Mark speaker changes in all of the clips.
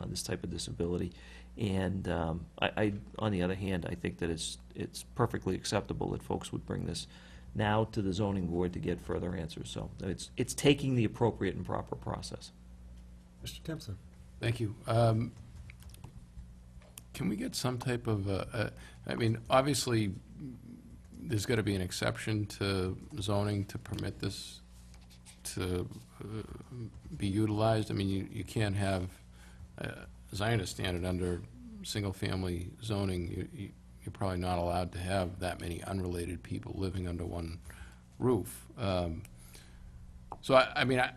Speaker 1: uh, this type of disability. And um, I, I, on the other hand, I think that it's, it's perfectly acceptable that folks would bring this now to the zoning board to get further answers. So it's, it's taking the appropriate and proper process.
Speaker 2: Mr. Timpson?
Speaker 3: Thank you. Um, Can we get some type of, uh, uh, I mean, obviously, mm, there's got to be an exception to zoning to permit this to uh, be utilized. I mean, you you can't have, uh, as I understand it, under single-family zoning, you- you- you're probably not allowed to have that many unrelated people living under one roof. Um, so I, I mean, I,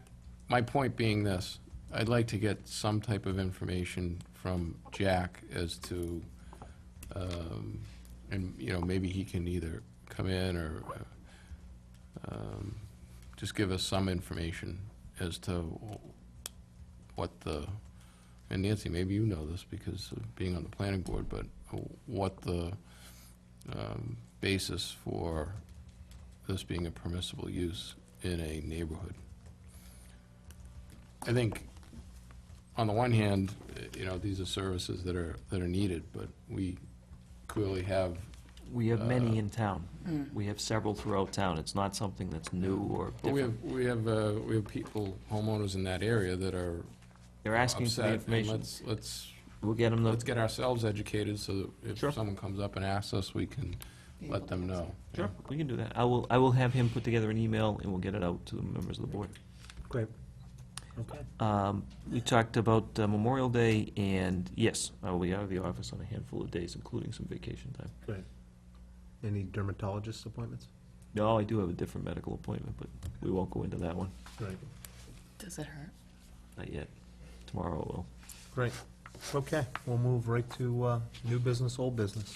Speaker 3: my point being this, I'd like to get some type of information from Jack as to, um, and, you know, maybe he can either come in or, um, just give us some information as to what the, and Nancy, maybe you know this because of being on the planning board, but what the, um, basis for this being a permissible use in a neighborhood. I think, on the one hand, eh, you know, these are services that are, that are needed, but we clearly have,
Speaker 1: We have
Speaker 3: Uh,
Speaker 1: many in town. We have several throughout town. It's not something that's new or
Speaker 3: but we
Speaker 1: different.
Speaker 3: have, we have, uh, we have people, homeowners in that area that are
Speaker 1: They're asking for
Speaker 3: upset,
Speaker 1: the
Speaker 3: and
Speaker 1: information.
Speaker 3: Let's, let's,
Speaker 1: We'll get them the,
Speaker 3: let's get ourselves educated so that
Speaker 1: Sure.
Speaker 3: if someone comes up and asks us, we can let them know.
Speaker 1: sure, we can do that. I will, I will have him put together an email and we'll get it out to the members of the board.
Speaker 2: Great. Okay.
Speaker 1: Um, We talked about uh, Memorial Day, and yes, I will be out of the office on a handful of days, including some vacation time.
Speaker 2: Great. Any dermatologist appointments?
Speaker 1: No, I do have a different medical appointment, but we won't go into that one,
Speaker 2: Great.
Speaker 4: Does it hurt?
Speaker 1: not yet. Tomorrow I will.
Speaker 2: Great. Okay, we'll move right to uh, new business, old business.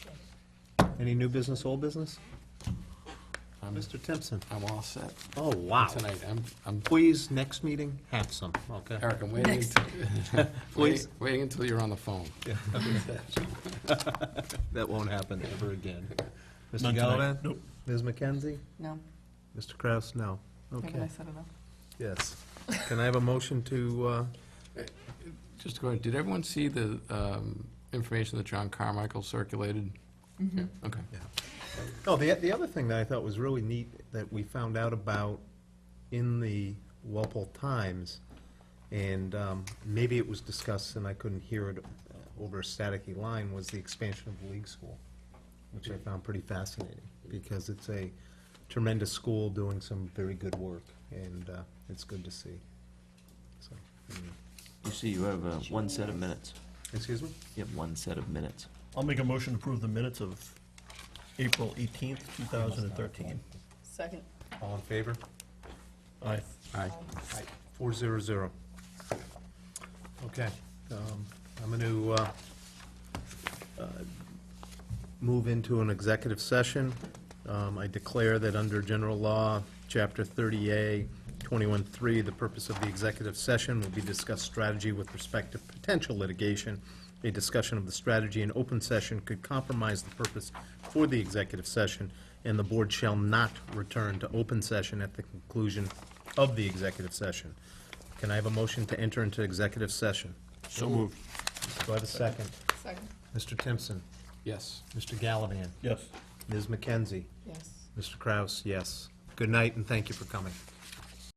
Speaker 2: Any new business, old business?
Speaker 3: I'm,
Speaker 2: Mr. Timpson?
Speaker 3: I'm all set
Speaker 2: Oh, wow.
Speaker 3: tonight. I'm, I'm,
Speaker 2: Please, next meeting, have some, okay?
Speaker 3: Eric, I'm waiting,
Speaker 4: Next.
Speaker 3: until-
Speaker 2: Please.
Speaker 3: waiting until you're on the phone.
Speaker 2: That won't happen ever again. Mr.
Speaker 5: None tonight.
Speaker 2: Gallivan?
Speaker 5: Nope.
Speaker 2: Ms. McKenzie?
Speaker 4: No?
Speaker 2: Mr. Kraus, no.
Speaker 4: Haven't I
Speaker 2: Okay,
Speaker 4: set it up?
Speaker 2: yes. Can I have a motion to, uh,
Speaker 3: Just go ahead, did everyone see the um, information that John Carmichael circulated? Yeah, Okay.
Speaker 2: Oh, the, the other thing that I thought was really neat that we found out about in the Walpole Times, and um, maybe it was discussed and I couldn't hear it uh, over a staticky line, was the expansion of the league school, which I found pretty fascinating, because it's a tremendous school doing some very good work, and uh, it's good to see. So, mm.
Speaker 1: You see, you have uh, one set of minutes.
Speaker 2: Excuse me?
Speaker 1: You have one set of minutes.
Speaker 5: I'll make a motion to approve the minutes of April 18th, 2013.
Speaker 4: Second.
Speaker 2: All in favor?
Speaker 5: Aye.
Speaker 3: Aye.
Speaker 2: Four zero zero. Okay, um, I'm gonna, uh, uh, move into an executive session. Um, I declare that under general law, chapter thirty A, twenty-one three, the purpose of the executive session will be discuss strategy with respect to potential litigation. A discussion of the strategy in open session could compromise the purpose for the executive session, and the board shall not return to open session at the conclusion of the executive session. Can I have a motion to enter into executive session?
Speaker 3: So moved.
Speaker 2: Do I have a second?
Speaker 4: Second.
Speaker 2: Mr. Timpson?
Speaker 3: Yes.
Speaker 2: Mr. Gallivan?
Speaker 5: Yes.
Speaker 2: Ms. McKenzie?
Speaker 4: Yes.
Speaker 2: Mr. Kraus, yes. Good night, and thank you for coming.